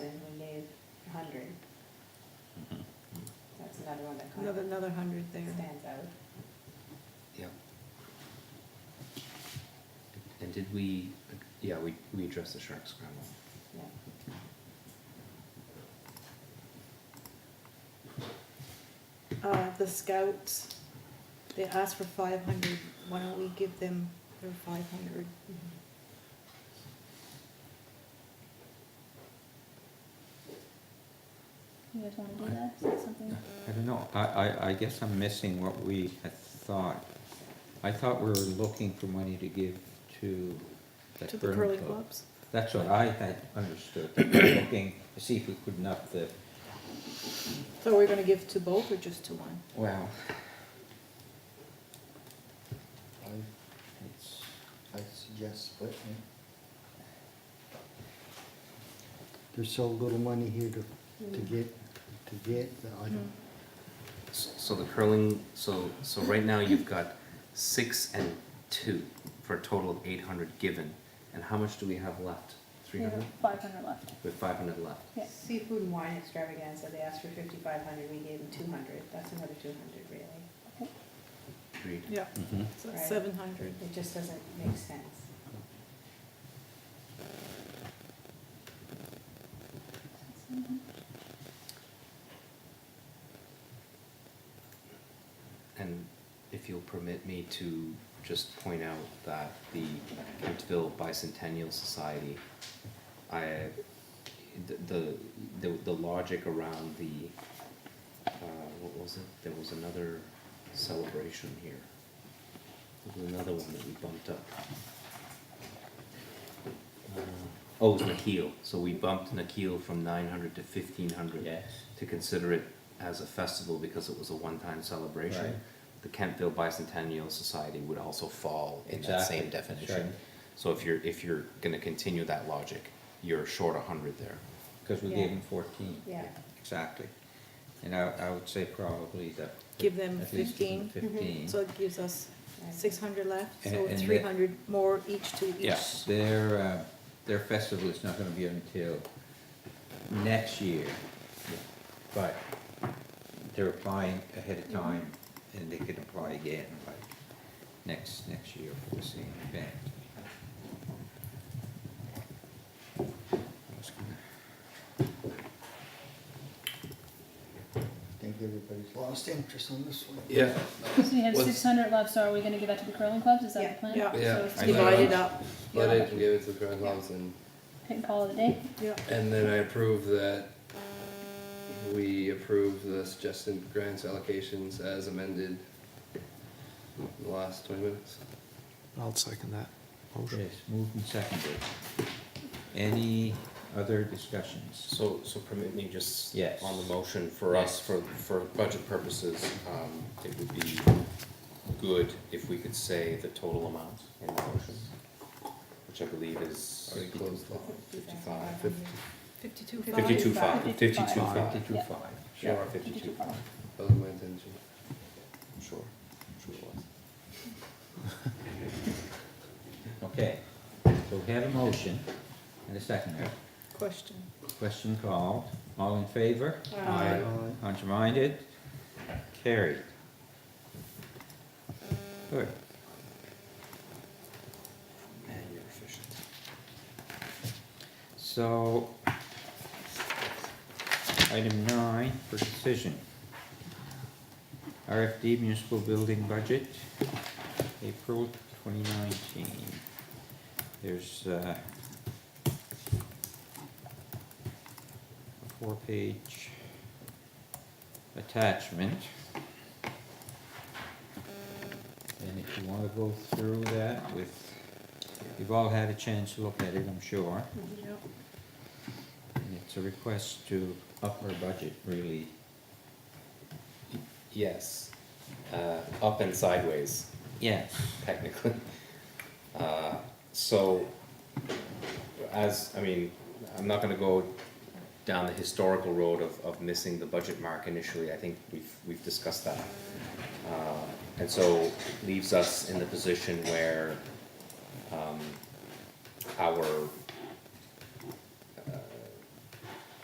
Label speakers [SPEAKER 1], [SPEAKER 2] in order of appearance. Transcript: [SPEAKER 1] that are on the
[SPEAKER 2] Another,
[SPEAKER 1] contract
[SPEAKER 2] another hundred there.
[SPEAKER 1] stands out.
[SPEAKER 3] Yeah. And did we, yeah, we, we addressed the shark scramble.
[SPEAKER 1] Yeah.
[SPEAKER 2] Uh, the scouts, they asked for five hundred, why don't we give them their five hundred?
[SPEAKER 4] You guys wanna do that? Is that something?
[SPEAKER 5] I don't know, I, I, I guess I'm missing what we had thought. I thought we were looking for money to give to
[SPEAKER 2] To
[SPEAKER 5] that
[SPEAKER 2] the
[SPEAKER 5] burn
[SPEAKER 2] curly
[SPEAKER 5] club.
[SPEAKER 2] clubs?
[SPEAKER 5] That's what I had understood, We were looking to see if we could up the,
[SPEAKER 2] So we're gonna give to both or just to one?
[SPEAKER 5] well,
[SPEAKER 6] I, it's, I suggest splitting it. There's so little money here to, to get, to get, that I
[SPEAKER 2] Mm.
[SPEAKER 6] don't,
[SPEAKER 3] S- So the curling, so, so right now you've got six and two for a total of eight hundred given. And how much do we have left? Three hundred?
[SPEAKER 4] Five hundred left,
[SPEAKER 3] We have five hundred left.
[SPEAKER 4] yeah.
[SPEAKER 1] Seafood and wine extravaganza, they asked for fifty-five hundred, we gave them two hundred, that's another two hundred really.
[SPEAKER 3] Agreed.
[SPEAKER 2] Yeah,
[SPEAKER 5] mhm.
[SPEAKER 2] so
[SPEAKER 1] Right.
[SPEAKER 2] that's seven hundred.
[SPEAKER 1] It just doesn't make sense.
[SPEAKER 3] And if you'll permit me to just point out that the Kentville Bicentennial Society, I, the- the, the, the logic around the, uh, what was it? There was another celebration here. There was another one that we bumped up. Uh, Oh, it was Nikhil, so we bumped Nikhil from nine hundred to fifteen hundred to consider it as a festival because it was a one-time celebration.
[SPEAKER 5] Right.
[SPEAKER 3] The Kentville Bicentennial Society would also fall in that
[SPEAKER 5] Exactly,
[SPEAKER 3] same
[SPEAKER 5] that's
[SPEAKER 3] definition.
[SPEAKER 5] right.
[SPEAKER 3] So if you're if you're going to continue that logic, you're short a hundred there.
[SPEAKER 5] Cause we
[SPEAKER 1] Yeah.
[SPEAKER 5] gave them fourteen.
[SPEAKER 1] Yeah.
[SPEAKER 5] Exactly. And I, I would say probably that.
[SPEAKER 2] Give them
[SPEAKER 5] at least
[SPEAKER 2] 15. Mhm.
[SPEAKER 5] Fifteen.
[SPEAKER 2] So it gives us
[SPEAKER 1] Right.
[SPEAKER 2] six hundred left,
[SPEAKER 5] And-
[SPEAKER 2] so
[SPEAKER 5] and the-
[SPEAKER 2] three hundred more each to each.
[SPEAKER 5] Yes, their, uh, their festival is not gonna be until next year, but they're applying ahead of time, and they can apply again, like, next, next year for the same event. I was gonna-
[SPEAKER 6] think everybody's lost interest on this one.
[SPEAKER 3] Yeah.
[SPEAKER 4] Because we have
[SPEAKER 7] What's-
[SPEAKER 4] six hundred left, so are we gonna give that to the curling clubs? Is that
[SPEAKER 1] Yeah.
[SPEAKER 4] the plan?
[SPEAKER 2] Yeah.
[SPEAKER 7] Yeah.
[SPEAKER 4] So it's
[SPEAKER 2] It's
[SPEAKER 7] I
[SPEAKER 4] like
[SPEAKER 7] know.
[SPEAKER 2] divided up,
[SPEAKER 7] But I can give it to the current clubs and,
[SPEAKER 4] Pick and call of the day.
[SPEAKER 2] yeah.
[SPEAKER 7] and then I approve that we approve the suggested grants allocations as amended in the last twenty minutes.
[SPEAKER 8] I'll second that motion.
[SPEAKER 5] Yes, moved and seconded. Any other discussions?
[SPEAKER 3] So so permit me just
[SPEAKER 5] Yes.
[SPEAKER 3] on the motion for us for for budget purposes, um, it would be good if we could say the total amount in the motion, which I believe is
[SPEAKER 7] Already closed off.
[SPEAKER 3] fifty-five.
[SPEAKER 2] Fifty-two
[SPEAKER 3] Fifty-two five,
[SPEAKER 4] Fifty-five.
[SPEAKER 3] fifty-two
[SPEAKER 4] Fifty-five.
[SPEAKER 3] five,
[SPEAKER 5] Fifty-two
[SPEAKER 4] Yeah.
[SPEAKER 5] five.
[SPEAKER 3] sure,
[SPEAKER 4] Did you
[SPEAKER 3] fifty-two
[SPEAKER 4] do
[SPEAKER 3] five,
[SPEAKER 7] That was my intention.
[SPEAKER 3] sure, sure it was.
[SPEAKER 5] Okay, so we have a motion and a second.
[SPEAKER 2] Question.
[SPEAKER 5] Question called. All in favor?
[SPEAKER 1] Aye.
[SPEAKER 6] Aye.
[SPEAKER 5] Contrary-minded? Carried. Good.
[SPEAKER 3] And you're efficient.
[SPEAKER 5] So, item nine for decision. RFD municipal building budget, April twenty nineteen. There's, uh, a four-page attachment. And if you wanna go through that with, you've all had a chance to look at it, I'm sure.
[SPEAKER 2] Yep.
[SPEAKER 5] And it's a request to up our budget, really.
[SPEAKER 3] Yes, uh, up and sideways,
[SPEAKER 5] Yes.
[SPEAKER 3] technically. Uh, so, as, I mean, I'm not gonna go down the historical road of, of missing the budget mark initially, I think we've, we've discussed that. Uh, and so leaves us in the position where, um, our